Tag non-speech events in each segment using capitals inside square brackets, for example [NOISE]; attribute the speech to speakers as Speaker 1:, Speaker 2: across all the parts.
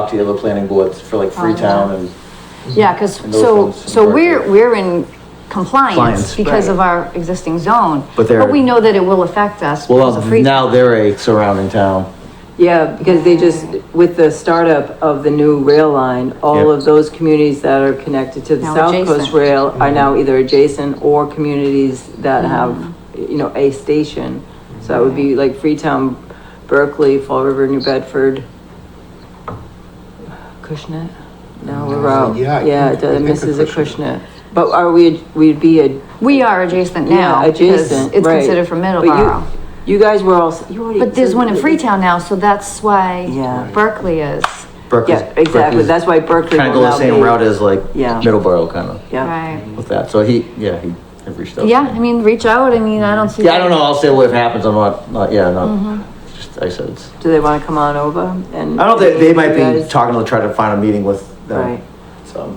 Speaker 1: talk to the other planning boards for like
Speaker 2: Oh,
Speaker 1: Freetown and,
Speaker 3: Yeah, because,
Speaker 1: And those
Speaker 3: so,
Speaker 1: ones
Speaker 3: so
Speaker 1: are-
Speaker 3: we're, we're in
Speaker 4: Compliance.
Speaker 3: compliance because of our existing zone.
Speaker 4: But they're-
Speaker 3: we know that it will affect us. because
Speaker 4: well,
Speaker 3: of free-
Speaker 4: now they're a surrounding town.
Speaker 2: Yeah, because they just, with the startup of the new rail line, all
Speaker 4: Yeah.
Speaker 2: of those communities that are connected to the
Speaker 3: Now
Speaker 2: South Coast
Speaker 3: adjacent.
Speaker 2: Rail are now
Speaker 5: Mm-hmm.
Speaker 2: either adjacent or communities that
Speaker 3: Mm-hmm.
Speaker 2: have, you know, a station. So that would be like Freetown, Berkeley, Fall River, New Bedford. Cushnet? No, we're out.
Speaker 5: Mm-hmm. Yeah, I
Speaker 2: Yeah,
Speaker 5: think- I think of
Speaker 2: Mrs.
Speaker 5: Cushnet.
Speaker 2: Cushnet. But are we, we'd be a
Speaker 3: We are adjacent now
Speaker 2: Yeah,
Speaker 3: because
Speaker 2: adjacent,
Speaker 3: it's
Speaker 2: right.
Speaker 3: considered from
Speaker 2: But you-
Speaker 3: Middleborough.
Speaker 2: You guys were all, you already.
Speaker 3: But there's one in
Speaker 2: so-
Speaker 3: Freetown now, so that's
Speaker 2: Yeah.
Speaker 3: why Berkeley is,
Speaker 4: Berkeley's-
Speaker 2: Yeah, exactly,
Speaker 4: Berkeley's
Speaker 2: that's why Berkeley
Speaker 4: Kind of
Speaker 2: will
Speaker 4: go the
Speaker 2: now
Speaker 4: same
Speaker 2: be-
Speaker 4: route as like
Speaker 2: Yeah.
Speaker 4: Middleborough, kind of,
Speaker 2: Yeah,
Speaker 3: right?
Speaker 4: with that. So he, yeah, he he reached out. to
Speaker 3: Yeah,
Speaker 4: me.
Speaker 3: I mean, reach out, I mean, I don't see.
Speaker 4: Yeah, I don't
Speaker 3: why-
Speaker 4: know, I'll say what happens, I'm not, not, yeah,
Speaker 2: Mm-hmm.
Speaker 4: not, just, I said it's.
Speaker 2: do they wanna come on over and?
Speaker 4: I don't think, they might
Speaker 2: You
Speaker 4: be
Speaker 2: guys-
Speaker 4: talking to try to find a meeting with
Speaker 2: Right.
Speaker 4: them. So,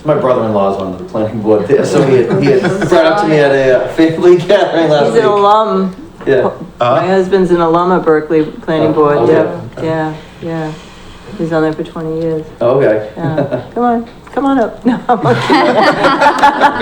Speaker 4: so my brother-in-law's on the planning board there, so he had, he
Speaker 2: [LAUGHS]
Speaker 4: had brought up to me at a uh, family [LAUGHS] gathering last
Speaker 2: He's an
Speaker 4: week.
Speaker 2: alum, [LAUGHS]
Speaker 4: Yeah,
Speaker 2: my husband's an alum at Berkeley Planning
Speaker 4: Oh,
Speaker 2: Board,
Speaker 4: okay.
Speaker 2: yeah, yeah, yeah, he's on there for twenty years,
Speaker 4: okay. [LAUGHS]
Speaker 2: yeah, come on, come on up, [LAUGHS] no, I'm okay.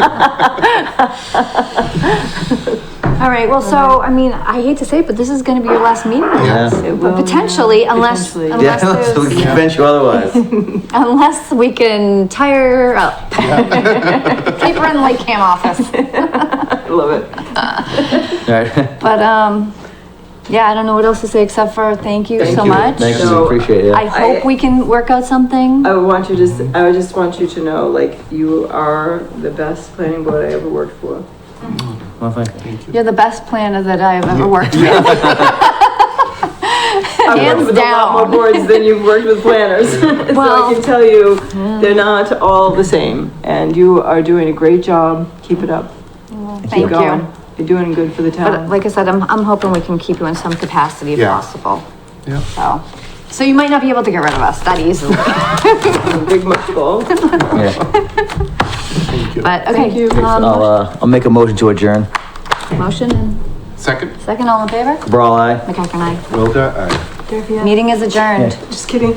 Speaker 3: All right, well, so, I mean, I hate to say it, but this is gonna be your last meeting with us.
Speaker 4: Yeah.
Speaker 2: It will,
Speaker 3: But potentially, unless,
Speaker 2: Potentially.
Speaker 4: Yeah, [LAUGHS]
Speaker 3: unless
Speaker 4: so we
Speaker 3: there's,
Speaker 4: can convince you otherwise.
Speaker 2: [LAUGHS]
Speaker 3: unless we can tire her up. [LAUGHS] Keep her in the Lake Cam
Speaker 2: [LAUGHS]
Speaker 3: office.
Speaker 2: I love it,
Speaker 4: Alright.
Speaker 3: But, um, yeah, I don't know what else to say except for thank you so much.
Speaker 4: Thank you,
Speaker 2: So,
Speaker 4: appreciate it.
Speaker 3: I hope we can work out something.
Speaker 2: I would want you to, s- I would just want you to know, like, you are the best planning board I ever worked for.
Speaker 4: Well, thank
Speaker 3: You're the best planner that I've ever worked with.
Speaker 2: I've
Speaker 3: Hands
Speaker 2: worked with a lot more
Speaker 3: down.
Speaker 2: boards than you've worked with planners. [LAUGHS] So I
Speaker 3: Well-
Speaker 2: can tell you, they're not all the same. And you are doing a great job. Keep it up. Keep
Speaker 3: Thank
Speaker 2: going.
Speaker 3: you.
Speaker 2: You're doing good for the
Speaker 3: But
Speaker 2: town.
Speaker 3: like I said, I'm, I'm hoping we can keep you in some capacity if
Speaker 5: Yeah.
Speaker 3: possible,
Speaker 5: Yeah.
Speaker 3: so. So you might not be able to get rid of us that easily,
Speaker 2: Big
Speaker 3: [LAUGHS]
Speaker 2: much goal.
Speaker 4: Yeah.
Speaker 3: but
Speaker 2: Thank
Speaker 3: okay.
Speaker 2: you.
Speaker 4: I'll,
Speaker 3: Um,
Speaker 4: uh, I'll make a motion to adjourn.
Speaker 3: motion and
Speaker 5: Second,
Speaker 3: second, all in favor?
Speaker 4: Cabral, aye.
Speaker 3: McCacker and I.
Speaker 5: Wilda, aye.
Speaker 3: Meeting is adjourned.
Speaker 2: Just kidding.